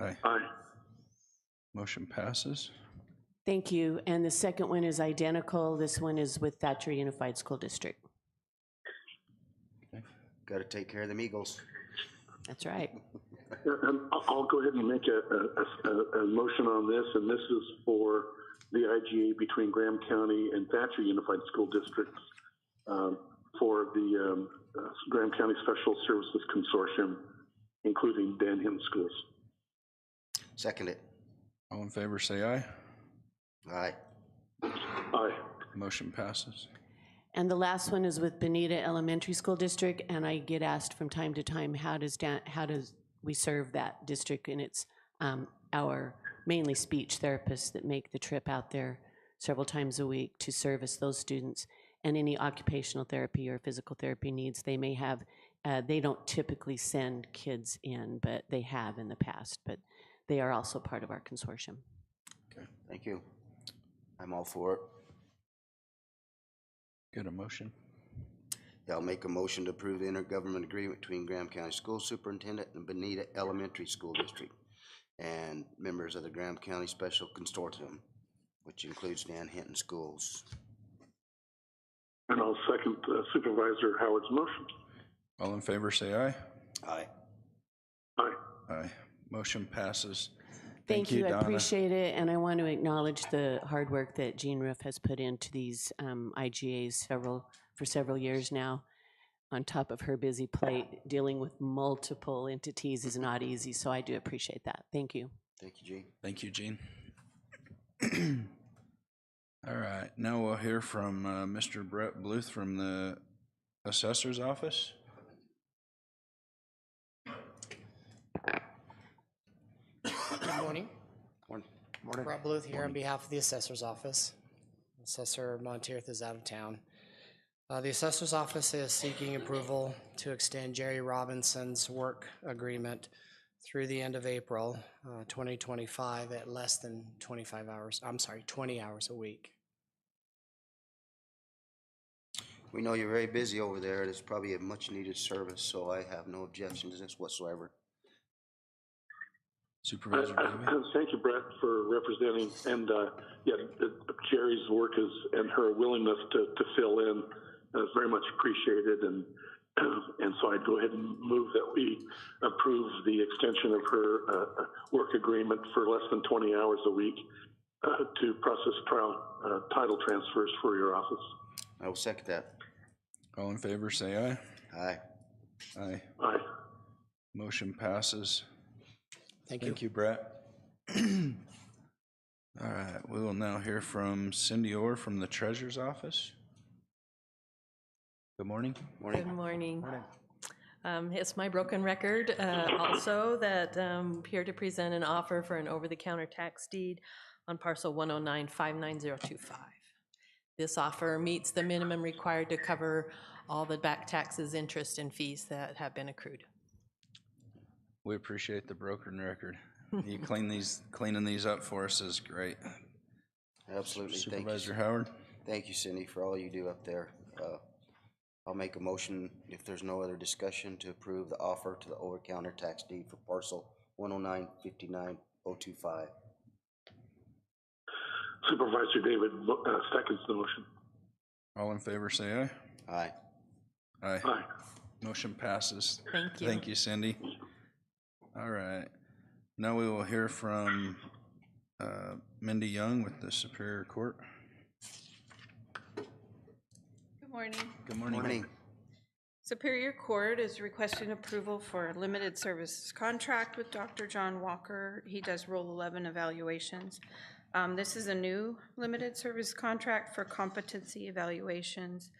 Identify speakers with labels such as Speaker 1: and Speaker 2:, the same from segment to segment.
Speaker 1: Aye.
Speaker 2: Aye.
Speaker 1: Motion passes.
Speaker 3: Thank you. And the second one is identical. This one is with Thatcher Unified School District.
Speaker 4: Got to take care of them Eagles.
Speaker 3: That's right.
Speaker 2: Yeah, um, I'll I'll go ahead and make a, a- a- a- a motion on this, and this is for the IGA between Graham County and Thatcher Unified School Districts um, for the um, uh, Graham County Special Services Consortium, including Danham Schools.
Speaker 4: Second it.
Speaker 1: All in favor, say aye.
Speaker 4: Aye.
Speaker 2: Aye.
Speaker 1: Motion passes.
Speaker 3: And the last one is with Benita Elementary School District, and I get asked from time to time, how does, da- how does we serve that district? And it's um, our mainly speech therapists that make the trip out there several times a week to service those students and any occupational therapy or physical therapy needs they may have. Uh, They don't typically send kids in, but they have in the past, but they are also part of our consortium.
Speaker 4: Thank you. I'm all for it.
Speaker 1: Get a motion.
Speaker 4: Yeah, I'll make a motion to approve the intergovernment agreement between Graham County School Superintendent and Benita Elementary School District and members of the Graham County Special Consortium, which includes Dan Hinton Schools.
Speaker 2: And I'll second uh, Supervisor Howard's motion.
Speaker 1: All in favor, say aye.
Speaker 4: Aye.
Speaker 2: Aye.
Speaker 1: Aye. Motion passes.
Speaker 3: Thank you, I
Speaker 1: Donna.
Speaker 3: appreciate it, and I want to acknowledge the hard work that Gene Roof has put into these um, IGAs several, for several years now. On top of her busy plate, dealing with multiple entities is not easy, so I do appreciate that. Thank you.
Speaker 4: Thank you, Gene.
Speaker 1: Thank you, Gene. All right, now we'll hear from uh, Mr. Brett Bluth from the Assessor's Office.
Speaker 5: Good morning.
Speaker 4: Morning.
Speaker 5: Rob Bluth here on behalf of the Assessor's Office. Assessor Monteith is out of town. Uh, The Assessor's Office is seeking approval to extend Jerry Robinson's work agreement through the end of April uh, 2025 at less than 25 hours, I'm sorry, 20 hours a week.
Speaker 4: We know you're very busy over there, and it's probably a much-needed service, so I have no objections to this whatsoever.
Speaker 2: Uh,
Speaker 1: Supervisor Davey?
Speaker 2: uh, Thank you, Brett, for representing, and, uh, yeah, uh, Jerry's work is, and her willingness to, to fill in uh, is very much appreciated, and, and so I'd go ahead and move that we approve the extension of her, uh, uh, work agreement for less than twenty hours a week, uh, to process trial, uh, title transfers for your office.
Speaker 4: I will second that.
Speaker 1: All in favor, say aye.
Speaker 4: Aye.
Speaker 1: Aye.
Speaker 2: Aye.
Speaker 1: Motion passes.
Speaker 5: Thank you.
Speaker 1: Thank you, Brett. All right, we will now hear from Cindy Orr from the Treasurer's Office. Good morning.
Speaker 4: Morning.
Speaker 6: Good morning. Um, It's my broken record uh, also that um, here to present an offer for an over-the-counter tax deed on parcel 109-59025. This offer meets the minimum required to cover all the back taxes, interest, and fees that have been accrued.
Speaker 1: We appreciate the broken record. You clean these, cleaning these up for us is great.
Speaker 4: Absolutely. Thank you.
Speaker 1: Supervisor Howard?
Speaker 4: Thank you, Cindy, for all you do up there. Uh, I'll make a motion, if there's no other discussion, to approve the offer to the over-counter tax deed for parcel one oh nine fifty-nine oh two five.
Speaker 2: Supervisor David, vo- uh, seconds the motion.
Speaker 1: All in favor, say
Speaker 4: Aye.
Speaker 1: aye. Aye.
Speaker 2: Aye.
Speaker 1: Motion passes.
Speaker 6: Thank you.
Speaker 1: Thank you, Cindy. All right. Now we will hear from uh, Mindy Young with the Superior Court.
Speaker 7: Good morning.
Speaker 1: Good morning.
Speaker 4: Morning.
Speaker 7: Superior Court is requesting approval for a limited services contract with Dr. John Walker. He does Rule 11 evaluations. Um, This is a new limited service contract for competency evaluations.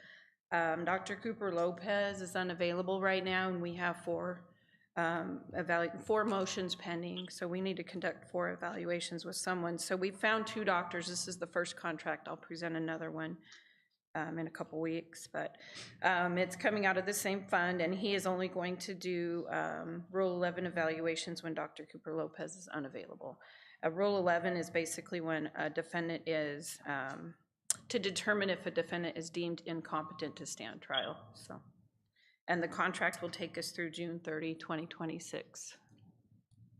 Speaker 7: Um, Dr. Cooper Lopez is unavailable right now, and we have four, um, evalu- four motions pending, so we need to conduct four evaluations with someone. So we found two doctors. This is the first contract. I'll present another one um, in a couple weeks, but um, it's coming out of the same fund, and he is only going to do um, Rule 11 evaluations when Dr. Cooper Lopez is unavailable. Uh, Rule 11 is basically when a defendant is, um, to determine if a defendant is deemed incompetent to stand trial, so. And the contract will take us through June 30, 2026.